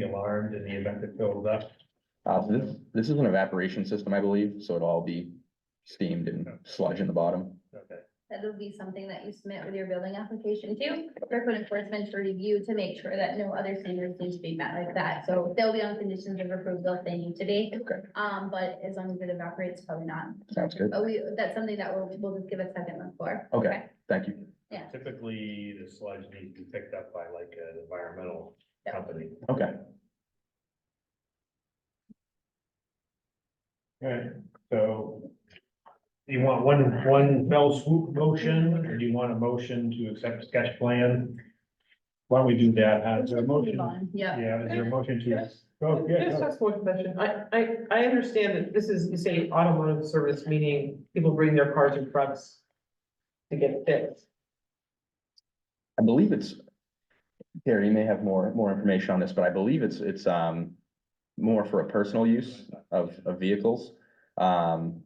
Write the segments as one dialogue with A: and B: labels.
A: be alarmed in the event it fills up.
B: Uh, so this, this is an evaporation system, I believe, so it'll all be steamed and sludge in the bottom.
A: Okay.
C: That'll be something that you submit with your building application too, for code enforcement to review to make sure that no other standards need to be met like that. So they'll be on conditions of approval if they need to be,
B: Okay,
C: um, but as long as it evaporates, probably not.
B: sounds good.
C: But we, that's something that we'll, we'll just give a second look for.
B: Okay, thank you.
C: Yeah.
A: Typically, the sludge needs to be picked up by like an environmental
C: Yeah.
A: company.
B: Okay,
A: Right, so. Do you want one, one fell swoop motion, or do you want a motion to accept sketch plan? Why don't we do that, uh, is there a motion?
C: Yeah,
A: Yeah, is there a motion to? Oh, yeah,
D: Just
A: no.
D: ask one question. I, I, I understand that this is, you say automotive service, meaning people bring their cars and trucks to get fixed.
B: I believe it's, Gary, you may have more, more information on this, but I believe it's, it's, um, more for a personal use of, of vehicles. Um,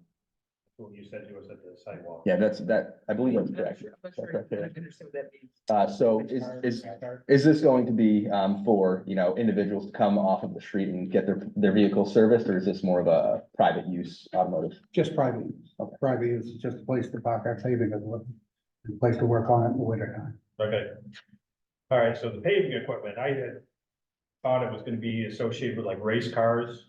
A: What you said to us at the sidewalk.
B: yeah, that's, that, I believe that's
D: I'm not
B: correct.
D: sure- I'm not sure I understand what that means.
B: Uh, so is, is, Is this going to be um for, you know, individuals to come off of the street and get their their vehicle serviced, or is this more of a private use automotive?
E: Just private, use.
B: Okay.
E: private use is just a place to park our paving and look, and place to work on it in the winter time.
A: Okay. All right, so the paving equipment, I had thought it was gonna be associated with like race cars.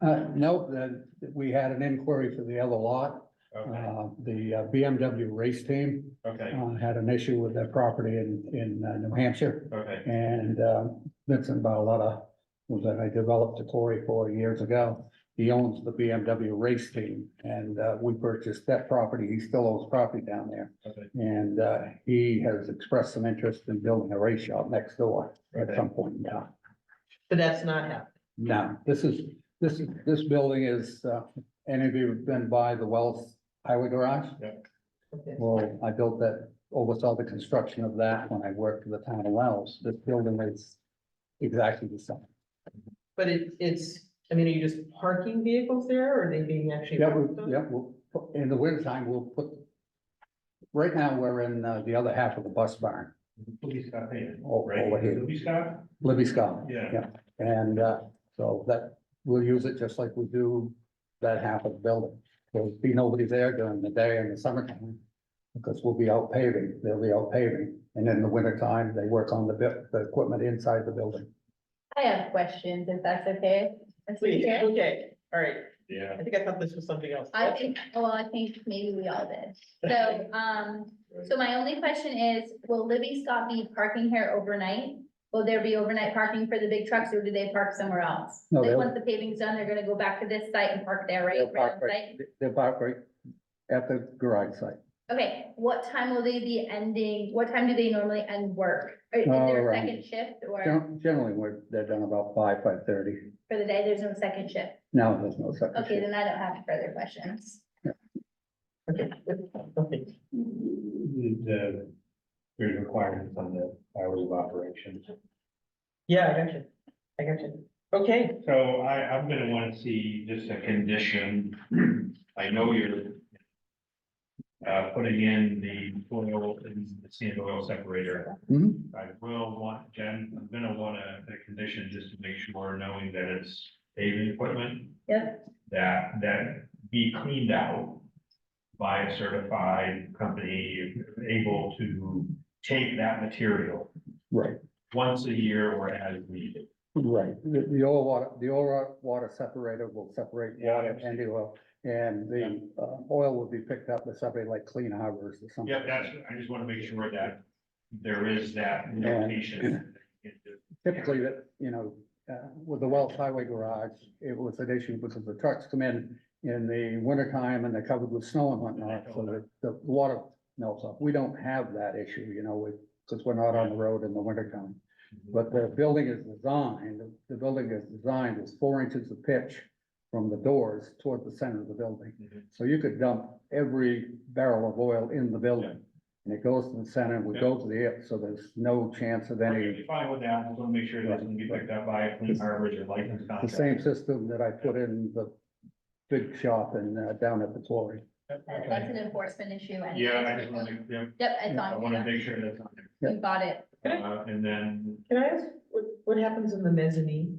E: Uh, no, the- we had an inquiry for the other lot,
A: Okay,
E: uh, the uh, BMW race team,
A: okay,
E: uh, had an issue with their property in, in uh, New Hampshire.
A: okay,
E: And, um, Vincent Barletta, who that I developed a quarry for years ago, he owns the BMW race team, and, uh, we purchased that property, he still owns property down there.
A: okay.
E: And uh, he has expressed some interest in building a race shop next door at
A: Okay.
E: some point in time.
D: But that's not happening.
E: Now, this is, this is, this building is, uh, any of you have been by the Wells Highway Garage?
D: Okay.
E: Well, I built that, oversaw the construction of that when I worked for the town of Wells. This building is exactly the same.
D: But it, it's, I mean, are you just parking vehicles there or are they being actually?
E: Yeah,
D: worked on?
E: we, yeah, we'll, put- in the winter time, we'll put, right now, we're in uh, the other half of the bus barn,
A: Police car payment.
E: o- over here.
A: Police car?
E: Libby Scott.
A: Yeah.
E: Yeah, and uh, so that, we'll use it just like we do that half of the building. There'll be nobody there during the day in the summertime. Because we'll be out paving, they'll be out paving, and in the wintertime, they work on the bit, the equipment inside the building.
C: I have questions, if that's okay. Mr.
D: Please,
C: Chair?
D: okay, all right.
A: Yeah.
D: I think I thought this was something else.
C: I think, well, I think maybe we all did. So, um, so my only question is, will Libby Scott be parking here overnight? Will there be overnight parking for the big trucks or do they park somewhere else?
E: No,
C: Like,
E: they'll-
C: once the paving's done, they're gonna go back to this site and park there, right?
E: They'll
C: Right on
E: park right-
C: site?
E: They're parked right at the garage site.
C: Okay, what time will they be ending? What time do they normally end work? Or Is
E: Oh,
C: there a
E: around-
C: second shift or
E: Gen- Generally, we're, they're done about five, five thirty.
C: for the day, there's no second shift?
E: No, there's no second
C: Okay,
E: shift.
C: then I don't have further questions.
D: Okay, okay.
A: Mm-hmm. The, there's requirements on the hours of operation.
D: Yeah, I got you. I got you. Okay,
A: So I, I'm gonna wanna see just a condition. I know you're uh, putting in the oil and the sand oil separator.
E: Mhm.
A: I will want, Jen, I'm gonna want a, a condition just to make sure, knowing that it's paving equipment.
C: Yep.
A: That, that be cleaned out by a certified company able to take that material
E: Right,
A: once a year or as needed.
E: right. The, the oil water, the oil water separator will separate And it will, and the uh, oil will be picked up by somebody like Clean Harbors or something.
A: Yep, that's, I just wanna make sure that there is that notation.
E: Typically, that, you know, uh, with the Wells Highway Garage, it was an issue because the trucks come in in the wintertime and they're covered with snow and whatnot, so that the water melts up. We don't have that issue, you know, because we're not on the road in the wintertime. But the building is designed, the building is designed with four inches of pitch from the doors toward the center of the building. So you could dump every barrel of oil in the building. And it goes to the center, we go to the, air, so there's no chance of
A: If
E: any,
A: you find with that, I just wanna make sure that doesn't get picked up by a clean harbor or licensed
E: the
A: contractor.
E: same system that I put in the big shop and uh, down at the quarry.
C: That-
A: Okay.
C: That's an enforcement issue. anyway.
A: Yeah, I just wanna, yeah,
C: Yep, I
A: I
C: thought,
A: wanna
C: you
A: make sure that's on there.
C: got it.
D: Okay.
A: Uh, and then
D: can I ask, what, what happens in the mezzanine?